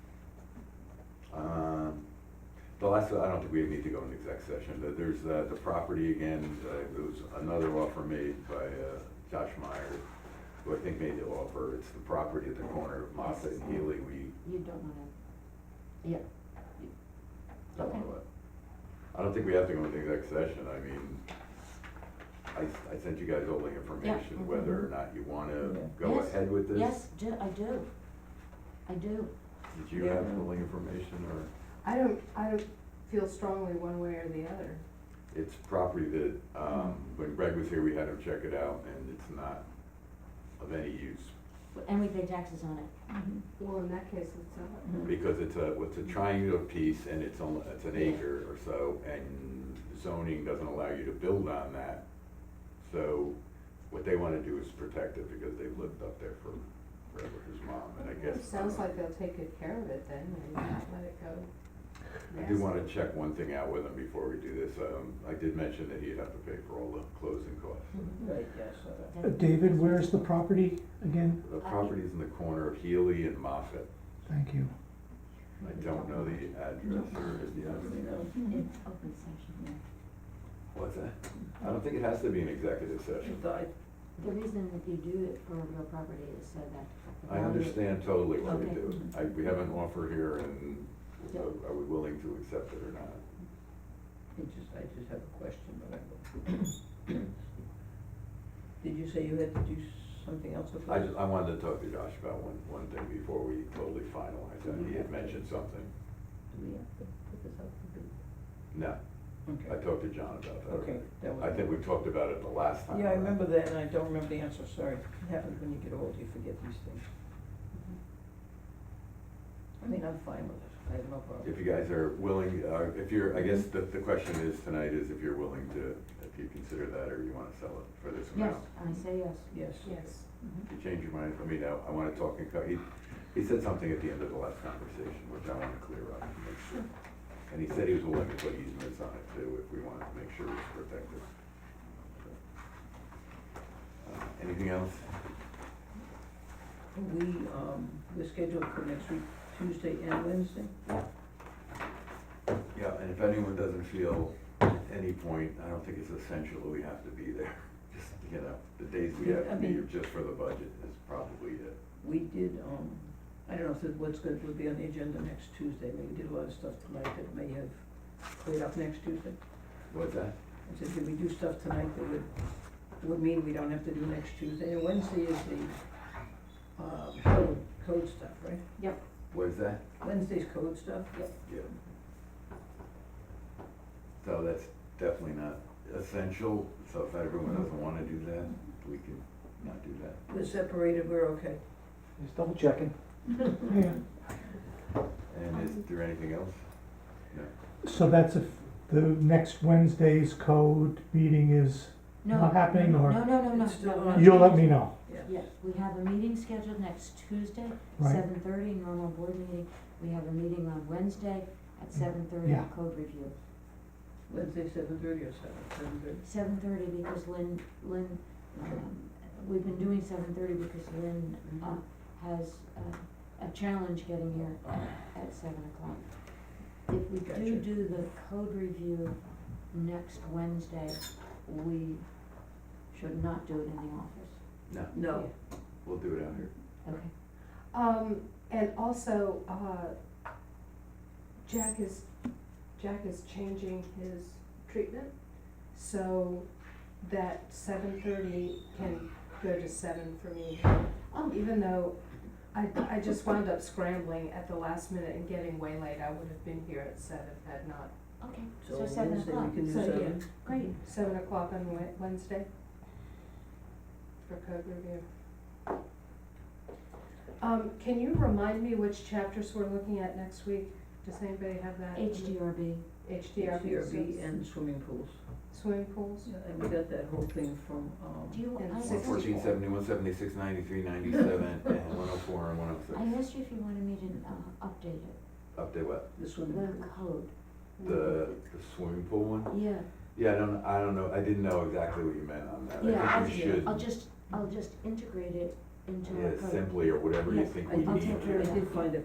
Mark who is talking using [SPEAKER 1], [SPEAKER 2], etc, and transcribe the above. [SPEAKER 1] Um, Well, that's, I don't think we need to go into exec session, There- there's uh, the property again, uh, it was another offer made by uh, Josh Meyer, who I think made the offer, it's the property at the corner of Moffett and Healy, we
[SPEAKER 2] You don't wanna,
[SPEAKER 1] don't know it. I don't think we have to go into exec session, I mean, I, I sent you guys all the information,
[SPEAKER 2] mhm.
[SPEAKER 1] whether or not you wanna
[SPEAKER 3] Yeah.
[SPEAKER 1] go
[SPEAKER 2] Yes,
[SPEAKER 1] ahead with this.
[SPEAKER 2] yes, do, I do, I do.
[SPEAKER 1] Did you have all the information, or?
[SPEAKER 4] I don't, I don't feel strongly one way or the other.
[SPEAKER 1] It's property that, um,
[SPEAKER 4] Mm-hmm.
[SPEAKER 1] when Greg was here, we had him check it out, and it's not of any use,
[SPEAKER 2] And we pay taxes on it.
[SPEAKER 4] Well, in that case, it's not.
[SPEAKER 1] because it's a, it's a triangular piece, and it's on, it's an acre or so, and zoning doesn't allow you to build on that. So, what they wanna do is protect it, because they've lived up there for, forever, his mom, and I guess. uh,
[SPEAKER 4] Sounds like they'll take good care of it then and not let it go.
[SPEAKER 1] I do
[SPEAKER 4] nasty.
[SPEAKER 1] wanna check one thing out with him before we do this, um, I did mention that he'd have to pay for all the closing costs.
[SPEAKER 4] Mm-hmm.
[SPEAKER 3] Right, yes, uh,
[SPEAKER 5] Uh, David, where's the property again?
[SPEAKER 1] The property's in the corner of Healy and Moffett.
[SPEAKER 5] Thank you.
[SPEAKER 1] I don't know the address or the
[SPEAKER 3] you
[SPEAKER 1] address.
[SPEAKER 3] know.
[SPEAKER 2] It's open session.
[SPEAKER 1] What's that? I don't think it has to be an executive session.
[SPEAKER 3] I-
[SPEAKER 2] The reason that you do it for real property is so that. the
[SPEAKER 1] I
[SPEAKER 2] value-
[SPEAKER 1] understand totally what we
[SPEAKER 2] Okay.
[SPEAKER 1] do. I, we have an offer here and uh,
[SPEAKER 2] Yep.
[SPEAKER 1] are- are we willing to accept it or not?
[SPEAKER 3] I just, I just have a question, but I don't. Did you say you had to do something else before?
[SPEAKER 1] I just, I wanted to talk to Josh about one, one thing before we totally finalize that. He had mentioned something.
[SPEAKER 3] Do we have to put this out for
[SPEAKER 1] No,
[SPEAKER 3] bid?
[SPEAKER 1] I
[SPEAKER 3] Okay,
[SPEAKER 1] talked to John about that.
[SPEAKER 3] okay, that was.
[SPEAKER 1] I think we talked about it the last time.
[SPEAKER 3] Yeah, I
[SPEAKER 1] around.
[SPEAKER 3] remember that, and I don't remember the answer, sorry. It happens when you get old, you forget these things. I mean, I'm fine with it, I have no problem.
[SPEAKER 1] If you guys are willing, uh, if you're, I guess the, the question is tonight is if you're willing to, if you consider that or you wanna sell it for this
[SPEAKER 2] Yes,
[SPEAKER 1] amount.
[SPEAKER 2] I say yes.
[SPEAKER 3] Yes.
[SPEAKER 4] Yes.
[SPEAKER 1] If you change your mind, I mean, I, I wanna talk and co- he, he said something at the end of the last conversation, which I wanna clear up and make sure. And he said he was willing to put easements on it too, if we wanted to make sure it's protected. Uh, Anything else?
[SPEAKER 3] We, um, we're scheduled for next week, Tuesday and Wednesday?
[SPEAKER 1] Yeah, and if anyone doesn't feel at any point, I don't think it's essential that we have to be there. Just, you know, the days we have to be here just for the budget is probably it.
[SPEAKER 3] We did, um, I don't know if it, what's gonna, will be on the agenda next Tuesday, but we did a lot of stuff tonight that may have cleared up next Tuesday.
[SPEAKER 1] What's that?
[SPEAKER 3] I said, did we do stuff tonight that would, would mean we don't have to do next Tuesday? And Wednesday is the, uh, code, code stuff, right?
[SPEAKER 1] What's that?
[SPEAKER 3] Wednesday's code stuff? Yep.
[SPEAKER 1] Yeah. So that's definitely not essential, so if everyone
[SPEAKER 2] Mm-hmm.
[SPEAKER 1] doesn't wanna do that, we can not do that.
[SPEAKER 3] We're separated, we're okay.
[SPEAKER 5] Just double checking. Yeah,
[SPEAKER 1] And
[SPEAKER 2] Um,
[SPEAKER 1] is there anything else?
[SPEAKER 5] so that's if the next Wednesday's code meeting is,
[SPEAKER 2] No,
[SPEAKER 5] Not happening, or-
[SPEAKER 2] No, no, no, no,
[SPEAKER 3] It's still
[SPEAKER 2] no, no.
[SPEAKER 3] on.
[SPEAKER 5] you'll let me know.
[SPEAKER 2] Yes, we have a meeting scheduled next Tuesday,
[SPEAKER 5] Right.
[SPEAKER 2] seven thirty, normal board meeting. We have a meeting on Wednesday at seven thirty,
[SPEAKER 5] Yeah.
[SPEAKER 2] code review.
[SPEAKER 3] Wednesday, seven thirty or seven, seven thirty?
[SPEAKER 2] Seven thirty because Lynn, Lynn, um, we've been doing seven thirty because Lynn, uh,
[SPEAKER 3] Um,
[SPEAKER 2] has, uh, a challenge getting here at seven o'clock. If we
[SPEAKER 3] Gotcha.
[SPEAKER 2] do do the code review next Wednesday, we should not do it in the office,
[SPEAKER 1] No,
[SPEAKER 3] No.
[SPEAKER 1] we'll do it out here.
[SPEAKER 2] okay?
[SPEAKER 4] Um, and also, uh, Jack is, Jack is changing his treatment so that seven thirty can go to seven for me. Um,
[SPEAKER 2] Oh.
[SPEAKER 4] Even though I, I just wound up scrambling at the last minute and getting way late, I would have been here at seven had not.
[SPEAKER 2] Okay,
[SPEAKER 3] So
[SPEAKER 2] so seven
[SPEAKER 3] Wednesday,
[SPEAKER 2] o'clock,
[SPEAKER 3] we can do
[SPEAKER 4] so, yeah.
[SPEAKER 3] seven?
[SPEAKER 2] great.
[SPEAKER 4] Seven o'clock on Wed- Wednesday for code review. Um, can you remind me which chapters we're looking at next week? Does anybody have that?
[SPEAKER 2] HDRB,
[SPEAKER 4] HDRB.
[SPEAKER 3] CRB and swimming pools.
[SPEAKER 4] Swimming pools?
[SPEAKER 3] Yeah, And we got that whole thing from, um.
[SPEAKER 2] do you,
[SPEAKER 4] And
[SPEAKER 2] I
[SPEAKER 1] One
[SPEAKER 2] asked,
[SPEAKER 4] six-
[SPEAKER 1] fourteen seventy, one seventy-six ninety-three ninety-seven, and one oh four and one oh
[SPEAKER 2] I
[SPEAKER 1] six.
[SPEAKER 2] asked you if you wanted me to, uh, update it,
[SPEAKER 1] Update what?
[SPEAKER 3] The swimming
[SPEAKER 2] the
[SPEAKER 3] pool.
[SPEAKER 2] code,
[SPEAKER 1] The, the swimming pool one?
[SPEAKER 2] yeah.
[SPEAKER 1] Yeah, I don't, I don't know, I didn't know exactly what you meant on that.
[SPEAKER 2] Yeah,
[SPEAKER 1] I
[SPEAKER 2] I'll
[SPEAKER 1] think we
[SPEAKER 3] I'll-
[SPEAKER 1] should,
[SPEAKER 2] I'll just, I'll just integrate it into our
[SPEAKER 1] yeah,
[SPEAKER 2] code.
[SPEAKER 1] simply or whatever you
[SPEAKER 2] Yes,
[SPEAKER 1] think
[SPEAKER 3] I
[SPEAKER 1] we
[SPEAKER 3] did-
[SPEAKER 1] need
[SPEAKER 2] I'll take care
[SPEAKER 1] to.
[SPEAKER 2] of
[SPEAKER 3] I
[SPEAKER 2] that.
[SPEAKER 3] did find a